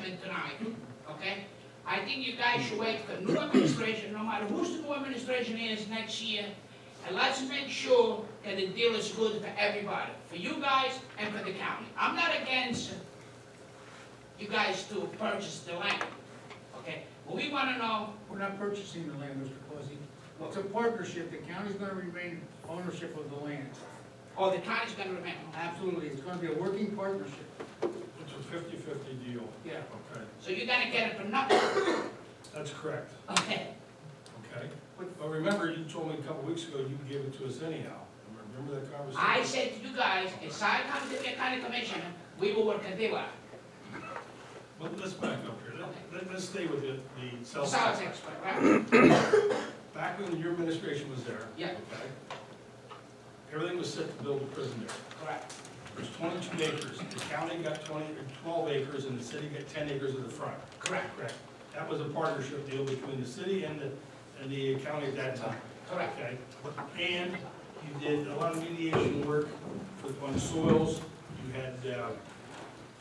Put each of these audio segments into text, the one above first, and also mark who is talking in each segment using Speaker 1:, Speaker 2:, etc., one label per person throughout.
Speaker 1: time, okay? I think you guys should wait for new administration, no matter who's the new administration is next year, and let's make sure that the deal is good for everybody, for you guys and for the county. I'm not against you guys to purchase the land, okay? But we wanna know,
Speaker 2: We're not purchasing the land, Mr. Cozy. It's a partnership. The county's gonna remain ownership of the land.
Speaker 1: or the county's gonna remember.
Speaker 2: Absolutely. It's gonna be a working partnership.
Speaker 3: It's a fifty-fifty deal.
Speaker 2: Yeah.
Speaker 3: Okay,
Speaker 1: So you're gonna get it for nothing,
Speaker 3: that's correct,
Speaker 1: okay?
Speaker 3: okay? But remember, you told me a couple weeks ago you gave it to us anyhow. Remember that conversation?
Speaker 1: I said to you guys, if I come to be a county commissioner, we will work a deal out.
Speaker 3: But let's back up here. Let- Let, let's stay with the, the cell
Speaker 1: So I was
Speaker 3: tower.
Speaker 1: expert, right?
Speaker 3: Back when your administration was there.
Speaker 1: Yeah.
Speaker 3: Okay? Everything was set to build a prison there.
Speaker 1: Correct.
Speaker 3: There's twenty-two acres. The county got 20 or 12 acres and the city got ten acres of the front.
Speaker 1: Correct.
Speaker 3: Correct. That was a partnership deal between the city and the, and the county at that time.
Speaker 1: Correct.
Speaker 3: Okay, and you did a lot of mediation work with, on soils, you had, uh, uh,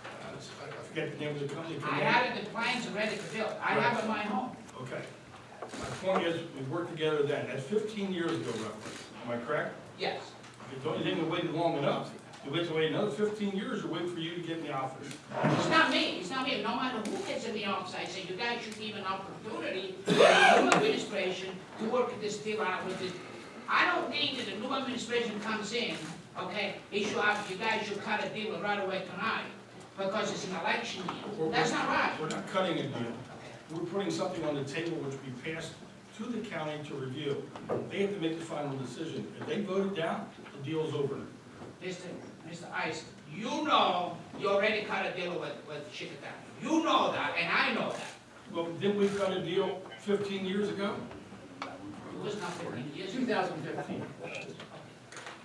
Speaker 3: I forget the name of the company.
Speaker 1: I have the plans ready to build, I have in my home.
Speaker 3: Okay, my point is, we worked together then, that's fifteen years ago roughly, am I correct?
Speaker 1: Yes,
Speaker 3: You don't, you didn't wait long enough, you wait to wait another fifteen years or wait for you to get in the office.
Speaker 1: it's not me, it's not me, no matter who gets in the office, I say, you guys should give an opportunity to the new administration to work this deal out with this. I don't think that the new administration comes in, okay, it should have, you guys should cut a deal right away tonight, because it's an election year, that's not right.
Speaker 3: We're not cutting a deal, we're putting something on the table which we passed to the county to review. They have to make the final decision, if they vote it down, the deal's over.
Speaker 1: Mr. Mr. Ice, you know you already cut a deal with, with Chickadam. You know that, and I know that.
Speaker 3: Well, didn't we cut a deal fifteen years ago,
Speaker 1: It was not fifteen years
Speaker 2: Two
Speaker 1: ago.
Speaker 2: thousand fifteen.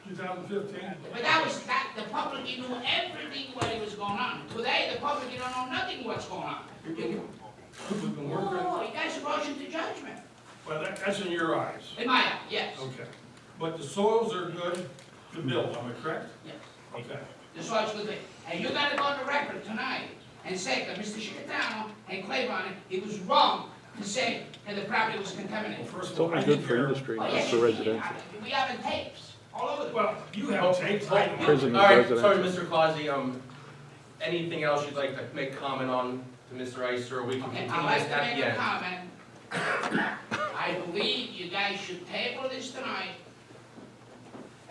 Speaker 3: two thousand fifteen?
Speaker 1: But that was, that, the public, you knew everything what it was going on. Today, the public, you don't know nothing what's going on.
Speaker 3: We've been
Speaker 1: No, no,
Speaker 3: working,
Speaker 1: no, you guys are rushing to judgment.
Speaker 3: well, that, that's in your eyes,
Speaker 1: In my eye, yes,
Speaker 3: okay. But the soils are good to build, am I correct?
Speaker 1: yes.
Speaker 3: Okay.
Speaker 1: The source was there. And you gotta go on the record tonight and say that Mr. Chickadam and Claiborne, it was wrong to say that the property was
Speaker 3: Well,
Speaker 1: contaminated.
Speaker 3: first
Speaker 4: It's
Speaker 3: of all, I
Speaker 4: only
Speaker 3: didn't
Speaker 4: good for
Speaker 3: hear.
Speaker 4: industry,
Speaker 1: Oh,
Speaker 4: not
Speaker 1: yes,
Speaker 4: for
Speaker 1: you did.
Speaker 4: residential.
Speaker 1: I- We have it tapes all over the place.
Speaker 3: Well, you have tapes, I don't.
Speaker 4: Prison is
Speaker 5: All right,
Speaker 4: residential.
Speaker 5: sorry, Mr. Clausy, um, anything else you'd like to make comment on to Mr. Ice, or we can
Speaker 1: Okay,
Speaker 5: continue
Speaker 1: I'd like
Speaker 5: this
Speaker 1: to
Speaker 5: at the
Speaker 1: make a
Speaker 5: end?
Speaker 1: comment. I believe you guys should table this tonight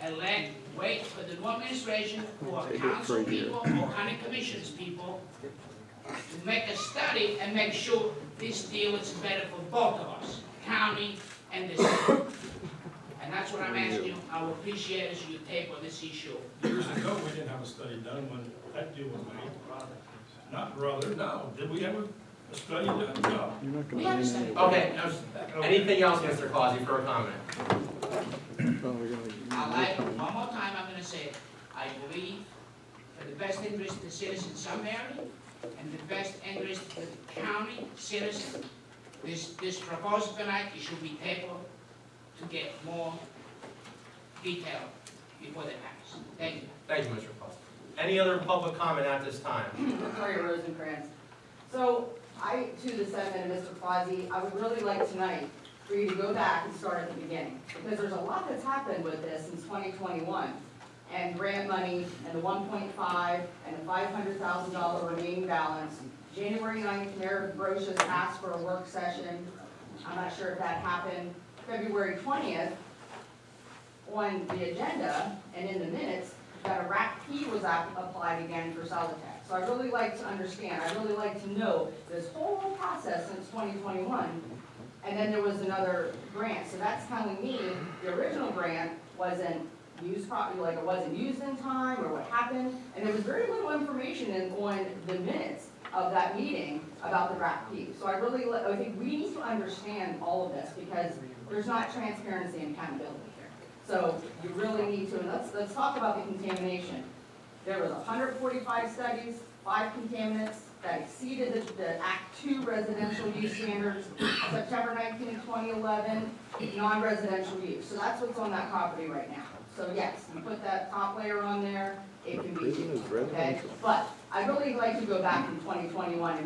Speaker 1: and let, wait for the new administration or
Speaker 4: Table it for
Speaker 1: council
Speaker 4: a year.
Speaker 1: people or county commissions people to make a study and make sure this deal is better for both of us, county and the city. And that's what I'm asking you. I would appreciate it if you table this issue.
Speaker 3: Years ago, we didn't have a study done when that deal was made. Not brother, no, did we have a, a study done? No.
Speaker 4: You're not
Speaker 1: We
Speaker 4: gonna win
Speaker 1: understand.
Speaker 4: anyway.
Speaker 5: Okay, no, s-
Speaker 3: Okay.
Speaker 5: anything else, Mr. Clausy, for a comment?
Speaker 4: Well, we're gonna-
Speaker 1: I like, one more time, I'm gonna say, it. I believe for the best interest of the citizens somewhere and the best interest of the county citizen, this, this proposal tonight, it should be tabled to get more detail before they pass. Thank you.
Speaker 5: Thank you, Mr. Clausy. Any other public comment at this time?
Speaker 6: Victoria Rosencrantz. So I, to the sentiment of Mr. Quasi, I would really like tonight for you to go back and start at the beginning. Because there's a lot that's happened with this since 2021. And grant money and the 1.5 and the $500,000 remaining balance. January 9th, Mayor Brochus asked for a work session. I'm not sure if that happened. February 20th, on the agenda and in the minutes that a RAP P was ap- applied again for Solid Tax. So I really like to understand, I really like to know this whole process since 2021. And then there was another grant, so that's telling me the original grant wasn't used properly, like it wasn't used in time or what happened. And there was very little information in, on the minutes of that meeting about the RAP P. So I really, li- I think we need to understand all of this because there's not transparency and accountability here. So you really need to, and let's, let's talk about the contamination. There was hundred forty-five studies, five contaminants that exceeded the, the Act Two residential use standards, September 19, 2011, non-residential use. So that's what's on that property right now. So yes, you put that top layer on there, it can be,
Speaker 4: Prison is
Speaker 6: okay?
Speaker 4: residential.
Speaker 6: But I'd really like to go back in twenty twenty-one and